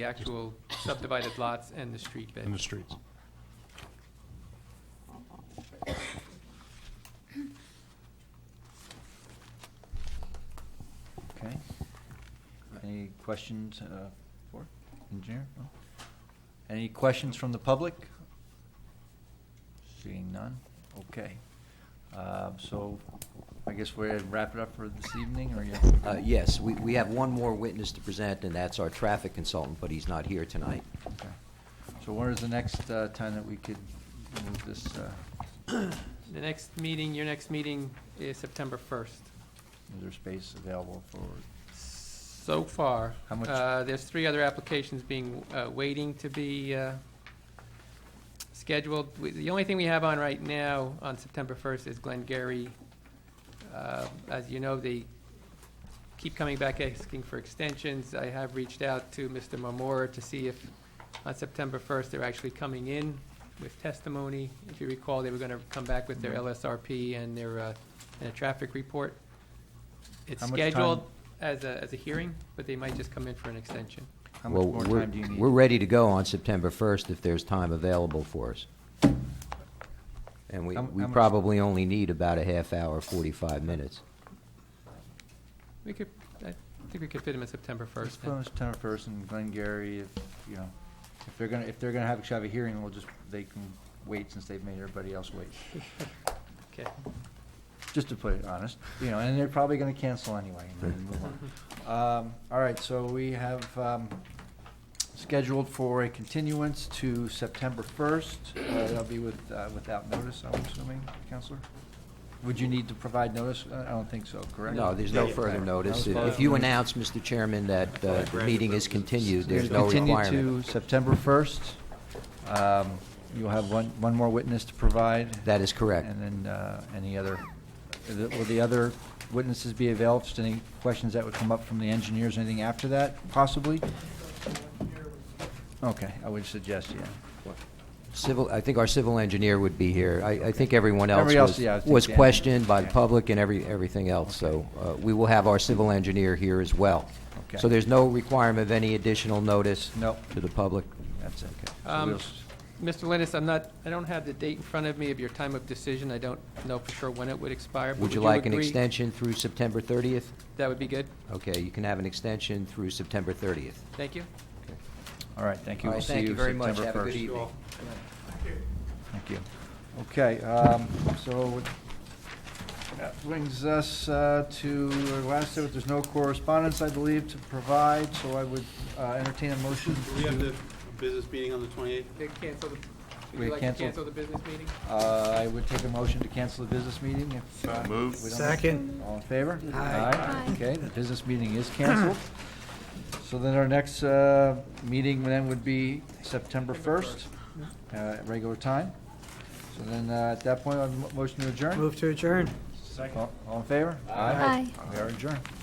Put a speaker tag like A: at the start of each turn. A: the actual subdivided lots and the street
B: in
A: bed.
B: the streets.
C: Okay. Any questions uh, for engineer? No? Any questions from the public? Seeing none? Okay. Uh, So I guess we're gonna wrap it up for this evening, or you?
D: Uh, Yes, we we have one more witness to present, and that's our traffic consultant, but he's not here tonight.
C: Okay. So when is the next uh, time that we could move this? uh,
A: The next meeting, your next meeting is September 1st.
C: Is there space available for,
A: So far.
C: How much-
A: uh, There's three other applications being, uh, waiting to be uh, scheduled. We- The only thing we have on right now, on September 1st, is Glengarry. Uh, As you know, they keep coming back asking for extensions. I have reached out to Mr. Mamora to see if on September 1st, they're actually coming in with testimony. If you recall, they were going to come back with
C: Mm-hmm.
A: their LSRP and their, uh, and a traffic report. It's
C: How much time-
A: scheduled as a, as a hearing, but they might just come in for an extension.
C: how much
D: Well,
C: more
D: we're-
C: time do you need?
D: We're ready to go on September 1st if there's time available for us. And we
C: How m-
D: we
C: how much-
D: probably only need about a half hour, 45 minutes.
A: We could, I think we could fit them in September
C: Let's
A: 1st.
C: put on
A: then.
C: September first and Glenn Gary, if, you know, if they're gonna, if they're gonna have, actually have a hearing, we'll just, they can wait since they've made everybody else wait.
A: Okay.
C: Just to put it honest, you know, and they're probably gonna cancel anyway and then move on. Um, all right, so we have, um, scheduled for a continuance to September first. Uh, that'll be with, uh, without notice, I'm assuming, Counselor? Would you need to provide notice? I I don't think so, correct?
D: No, there's no
C: Yeah.
D: further
C: Okay.
D: notice.
C: That
D: If
C: was
D: if you
C: fine.
D: announce, Mr. Chairman, that uh, the meeting is continued,
C: We're
D: there's
C: gonna
D: no requirement.
C: Continue to September 1st. Um, You'll have one, one more witness to provide.
D: That is correct.
C: And then uh, any other, will the other witnesses be available? Just any questions that would come up from the engineers, anything after that, possibly? Okay, I would suggest, yeah.
D: Civil, I think our civil engineer would be here. I, I think everyone else
C: Everybody else,
D: was,
C: yeah, I think
D: was
C: Dan-
D: questioned by the
C: yeah.
D: public and every, everything else. So uh, we will have our civil engineer here as well.
C: Okay.
D: So there's no requirement of any additional notice
C: Nope.
D: to the public.
C: That's it. So
A: Um,
C: we'll s-
A: Mr. Linus, I'm not, I don't have the date in front of me of your time of decision. I don't know for sure when it would expire. but
D: Would you like an
A: agree
D: extension through September 30th?
A: That would be good.
D: Okay, you can have an extension through September 30th.
A: Thank you.
C: All right, thank you.
D: All right,
C: We'll see
D: thank you very much.
C: September
D: Have a
C: 1st.
D: good evening.
C: Thank you. Okay, um, so that brings us uh, to our last, if there's no correspondence, I believe, to provide, so I would uh, entertain a motion.
E: Do we have the business meeting on the 28th?
A: They canceled, would
C: We
A: you like to
C: canceled.
A: cancel the business meeting?
C: Uh, I would take a motion to cancel the business meeting if. uh, we don't-
F: Second.
C: All in favor?
F: Aye. Aye.
C: Okay, the business meeting is canceled. So then our next uh, meeting then would be September 1st, uh, at regular time. So then uh, at that point, I'd mo- motion to adjourn.
F: Move to adjourn.
C: All all in favor?
F: Aye.
C: We are adjourned.